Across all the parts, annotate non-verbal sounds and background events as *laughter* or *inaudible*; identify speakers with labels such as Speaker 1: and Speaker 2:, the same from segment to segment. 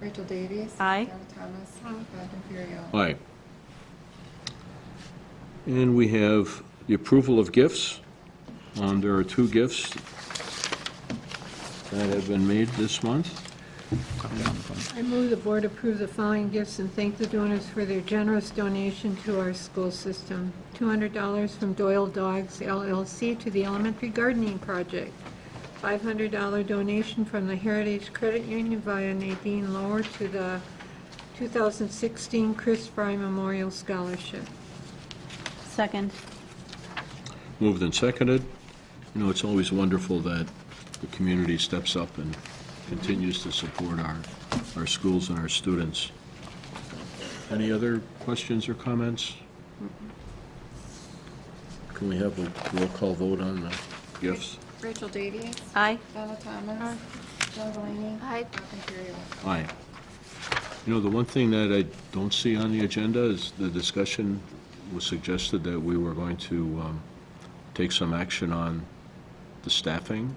Speaker 1: Rachel Davies.
Speaker 2: Aye.
Speaker 1: Donna Thomas. Bob Imperio.
Speaker 3: Aye. And we have the approval of gifts. Um, There are two gifts that have been made this month.
Speaker 4: I move the board approve the following gifts and thank the donors for their generous donation to our school system. $200 from Doyle Dogs LLC to the Elementary Gardening Project. $500 donation from the Heritage Credit Union via Nadine Lower to the 2016 Chris Fry Memorial Scholarship.
Speaker 2: Second.
Speaker 3: Moved and seconded. You know, it's always wonderful that the community steps up and continues to support our, our schools and our students. Any other questions or comments? Can we have a roll call vote on the gifts?
Speaker 1: Rachel Davies.
Speaker 2: Aye.
Speaker 1: Donna Thomas. Joe Delaney.
Speaker 2: Aye.
Speaker 1: Bob Imperio.
Speaker 3: Aye. You know, the one thing that I don't see on the agenda is the discussion was suggested that we were going to um, take some action on the staffing.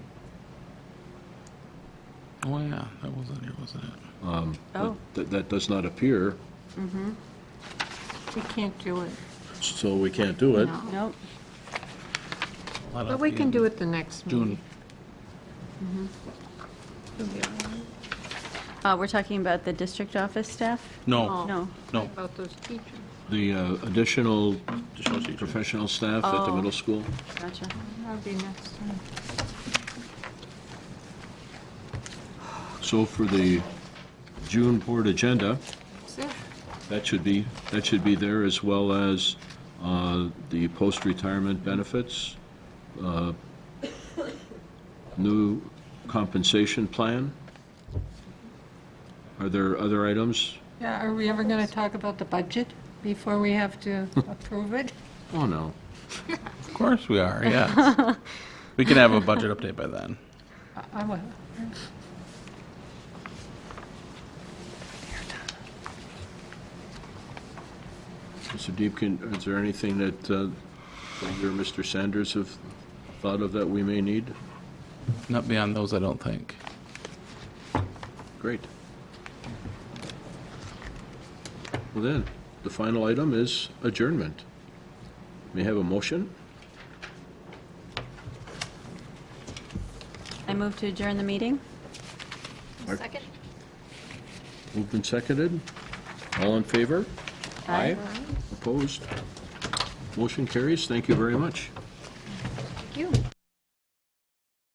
Speaker 5: Oh, yeah, that was on here, wasn't it?
Speaker 2: Oh.
Speaker 3: That, that does not appear,
Speaker 4: We can't do it.
Speaker 3: so we can't do it.
Speaker 4: No.
Speaker 2: Oh, Nope.
Speaker 4: But we can do it the next meeting.
Speaker 5: June.
Speaker 4: Mm-hmm. It'll be all right.
Speaker 2: Uh, We're talking about the district office staff?
Speaker 4: Oh.
Speaker 5: No,
Speaker 2: No.
Speaker 5: no.
Speaker 4: About those teachers.
Speaker 3: The uh, additional
Speaker 5: additional teacher.
Speaker 3: professional staff at the
Speaker 2: Oh.
Speaker 3: middle school?
Speaker 2: Gotcha.
Speaker 4: That'll be next time.
Speaker 3: So for the June board agenda,
Speaker 4: That's it.
Speaker 3: that should be, that should be there, as well as uh, the post-retirement benefits, uh, new compensation plan. Are there other items?
Speaker 4: Yeah, are we ever going to talk about the budget before we have to approve it? *laughs*
Speaker 3: Oh, no.
Speaker 5: Of course we are, yes. We can have a budget update by then.
Speaker 4: I- I will.
Speaker 3: Mr. Deepkin, is there anything that uh, you or Mr. Sanders have thought of that we may need?
Speaker 5: Not beyond those, I don't think.
Speaker 3: Great. Well then, the final item is adjournment. May I have a motion?
Speaker 2: I move to adjourn the meeting?
Speaker 3: Second. Moved and seconded. All in favor? Opposed? Motion carries. Thank you very much.